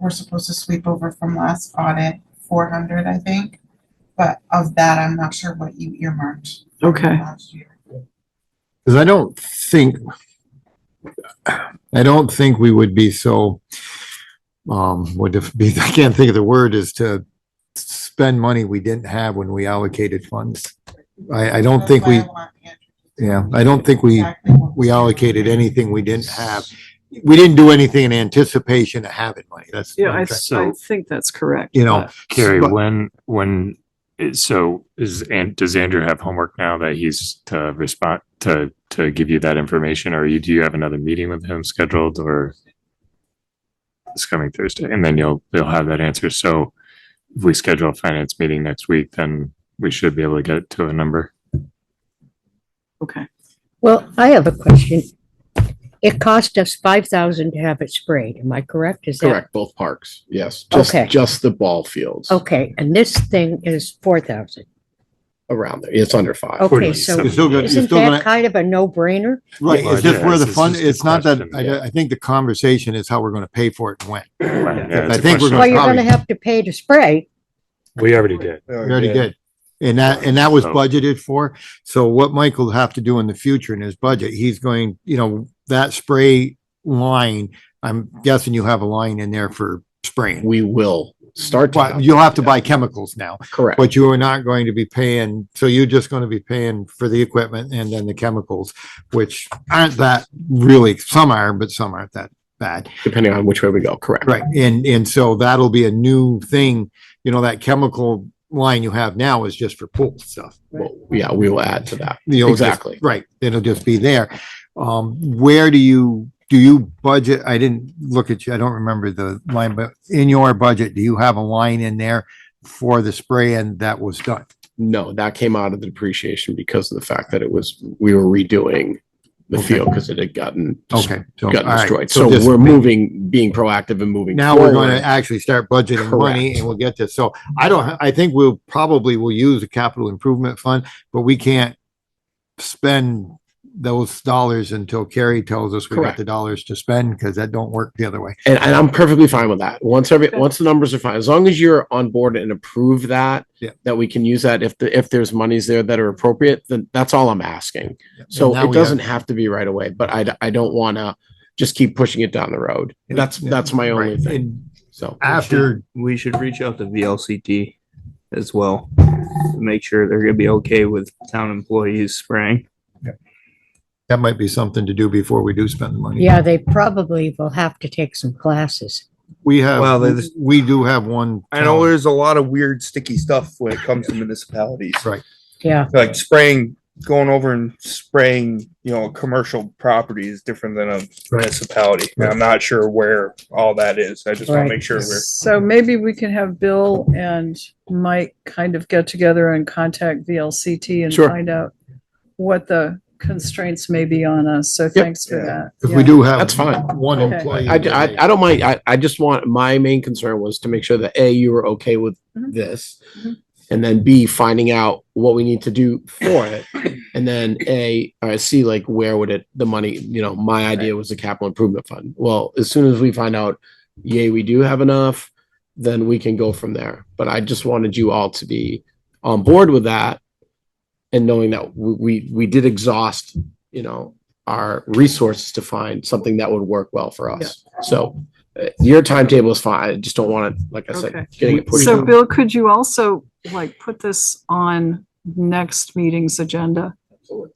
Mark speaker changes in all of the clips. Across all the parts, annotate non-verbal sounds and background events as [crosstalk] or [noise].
Speaker 1: we're supposed to sweep over from last audit, four hundred, I think. But of that, I'm not sure what you earmarked
Speaker 2: Okay.
Speaker 1: last year.
Speaker 3: Because I don't think, I don't think we would be so, um, would it be, [laughs] I can't think of the word, is to spend money we didn't have when we allocated funds. I, I don't
Speaker 1: That's
Speaker 3: think
Speaker 1: why
Speaker 3: we,
Speaker 1: I want Andrew to
Speaker 3: yeah, I don't think we,
Speaker 1: exactly what
Speaker 3: we allocated anything we didn't have. We didn't do anything in anticipation of having money. That's.
Speaker 2: Yeah, I, th- I
Speaker 4: So-
Speaker 2: think that's correct.
Speaker 3: You know,
Speaker 2: but-
Speaker 4: Carrie,
Speaker 3: But-
Speaker 4: when, when, so is, and does Andrew have homework now that he's to respond, to, to give you that information? Or you, do you have another meeting with him scheduled or? It's coming Thursday and then you'll, you'll have that answer. So if we schedule a finance meeting next week, then we should be able to get to a number.
Speaker 2: Okay.
Speaker 5: Well, I have a question. It cost us five thousand to have it sprayed, am I correct? Is that-
Speaker 6: Correct, both parks, yes. Just,
Speaker 5: Okay.
Speaker 6: just the ball fields
Speaker 5: Okay, and this thing is four thousand.
Speaker 6: around there. It's under five.
Speaker 5: Okay,
Speaker 3: You're
Speaker 5: so
Speaker 3: still gonna, you're
Speaker 5: isn't
Speaker 3: still
Speaker 5: that
Speaker 3: gonna,
Speaker 5: kind of a no-brainer?
Speaker 3: right,
Speaker 4: Well,
Speaker 3: it's just
Speaker 4: yeah,
Speaker 3: where the
Speaker 4: it's- it's
Speaker 3: fund,
Speaker 4: just a
Speaker 3: it's not that,
Speaker 4: question,
Speaker 3: I, I think the conversation is how we're gonna pay for it and when.
Speaker 4: Right, yeah,
Speaker 3: I
Speaker 4: it's a
Speaker 3: think we're
Speaker 4: question.
Speaker 3: gonna
Speaker 5: Well, you're
Speaker 3: probably-
Speaker 5: gonna have to pay to spray.
Speaker 4: We already did.
Speaker 3: We already did. And that, and that was
Speaker 4: So-
Speaker 3: budgeted for. So what Michael will have to do in the future in his budget, he's going, you know, that spray line, I'm guessing you have a line in there for spraying.
Speaker 6: We will start. to
Speaker 3: But
Speaker 6: have-
Speaker 3: you'll have to buy chemicals now,
Speaker 6: Correct,
Speaker 3: but you are not going to be paying, so you're just going to be paying for the equipment and then the chemicals, which aren't that really, some are, but some aren't that bad.
Speaker 6: depending on which way we go, correct.
Speaker 3: Right, and, and so that'll be a new thing, you know, that chemical line you have now is just for pool stuff.
Speaker 6: Well, Yeah, we will add to that.
Speaker 3: You'll just-
Speaker 6: Exactly.
Speaker 3: Right, it'll just be there. Um, where do you, do you budget, I didn't look at you, I don't remember the line, but in your budget, do you have a line in there for the spray and that was done?
Speaker 6: No, that came out of the depreciation because of the fact that it was, we were redoing the
Speaker 3: Okay.
Speaker 6: field because it had gotten,
Speaker 3: Okay. so, all
Speaker 6: gotten
Speaker 3: right,
Speaker 6: destroyed. So
Speaker 3: just-
Speaker 6: we're moving, being proactive and moving.
Speaker 3: Now we're gonna
Speaker 6: forward.
Speaker 3: actually start budgeting money
Speaker 6: Correct.
Speaker 3: and we'll get this. So I don't, I think we'll probably will use a capital improvement fund, but we can't spend those dollars until Carrie tells us we got
Speaker 6: Correct.
Speaker 3: the dollars to spend, because that don't work the other way.
Speaker 6: And, and I'm perfectly fine with that. Once every,
Speaker 2: Okay.
Speaker 6: once the numbers are fine, as long as you're on board and approve that,
Speaker 3: Yeah.
Speaker 6: that we can use that if the, if there's monies there that are appropriate, then that's all I'm asking. So
Speaker 3: now we
Speaker 6: it
Speaker 3: have-
Speaker 6: doesn't have to be right away, but I, d- I don't want to just keep pushing it down the road.
Speaker 3: Yeah.
Speaker 6: That's,
Speaker 3: Yeah.
Speaker 6: that's my only
Speaker 3: Right.
Speaker 6: thing.
Speaker 3: And
Speaker 6: So
Speaker 3: After,
Speaker 7: we should reach out to VLCT as well. to Make sure they're gonna be okay with town employees spraying.
Speaker 3: that might be something to do before we do spend the money.
Speaker 5: Yeah, they probably will have to take some classes.
Speaker 3: We
Speaker 7: Well,
Speaker 3: have,
Speaker 7: there's-
Speaker 3: we do have one.
Speaker 7: I know
Speaker 3: town-
Speaker 7: there's a lot of weird sticky stuff when it comes to municipalities,
Speaker 5: Yeah,
Speaker 7: like spraying, going over and spraying, you know, a commercial property is different than a municipality. And I'm not sure where all that is. I just wanna
Speaker 5: Right.
Speaker 7: make sure we're.
Speaker 2: So maybe we can have Bill and Mike kind of get together and contact VLCT and
Speaker 6: Sure.
Speaker 2: find out what the constraints may be on us. So thanks for
Speaker 7: Yeah.
Speaker 2: that.
Speaker 3: If
Speaker 2: Yeah.
Speaker 3: we do have.
Speaker 6: That's fine.
Speaker 3: One
Speaker 2: Okay.
Speaker 3: employee.
Speaker 6: I, I, I don't mind. I, I just want, my main concern was to make sure that A, you were okay with
Speaker 2: Mhm.
Speaker 6: this.
Speaker 2: Mhm.
Speaker 6: And then B, finding out what we need to do for it. And then A, or C, like where would it, the money, you know, my idea was the capital improvement fund. Well, as soon as we find out, yay, we do have enough, then we can go from there. But I just wanted you all to be on board with that. And knowing that we, we, we did exhaust, you know, our resources to find something that would work well for us. So uh, your timetable is fine. I just don't want it, like I
Speaker 2: Okay.
Speaker 6: said, getting it pushed.
Speaker 2: So Bill, could you also like put this on next meeting's agenda?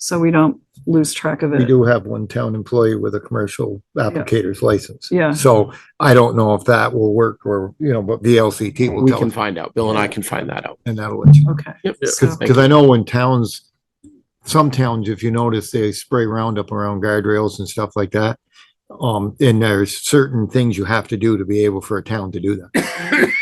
Speaker 2: So we don't lose track of
Speaker 3: We
Speaker 2: it.
Speaker 3: do have one town employee with a commercial applicator's license.
Speaker 2: Yeah.
Speaker 3: So I don't know if that will work or, you know, but VLCT will
Speaker 6: We
Speaker 3: tell
Speaker 6: can
Speaker 3: us
Speaker 6: find out. Bill and I can find that out.
Speaker 3: and that'll let you.
Speaker 2: Okay.
Speaker 6: Yep.
Speaker 2: So-
Speaker 6: Thank
Speaker 3: Cause I know when towns, some towns, if you notice, they spray Roundup around guardrails and stuff like that. Um, and there's certain things you have to do to be able for a town to do that.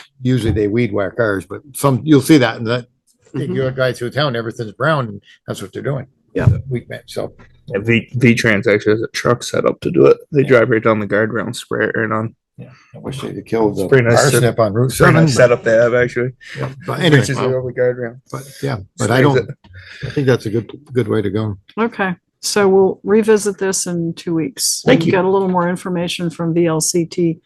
Speaker 7: [coughs]
Speaker 3: Usually they weed whack ours, but some, you'll see that in that,
Speaker 6: Mhm.
Speaker 3: you drive through town, everything's brown and that's what they're doing.
Speaker 7: Mm-hmm. Yeah.
Speaker 3: Weak man, so.
Speaker 7: Yeah, V V-Trans actually has a truck set up to do it. They drive right down the guardrail and spray it right on.
Speaker 3: I wish they'd killed
Speaker 7: the
Speaker 3: the parsnip
Speaker 7: parsnip
Speaker 3: on Route
Speaker 7: Pretty
Speaker 3: seven.
Speaker 7: nice setup they have actually.
Speaker 3: But anyway,
Speaker 7: Reaches right over the guardrail.
Speaker 3: but yeah, but I don't, I think that's a good, good way to go.
Speaker 2: Okay, so we'll revisit this in two weeks.
Speaker 6: Thank
Speaker 2: and
Speaker 6: you.
Speaker 2: Get a little more information from VLCT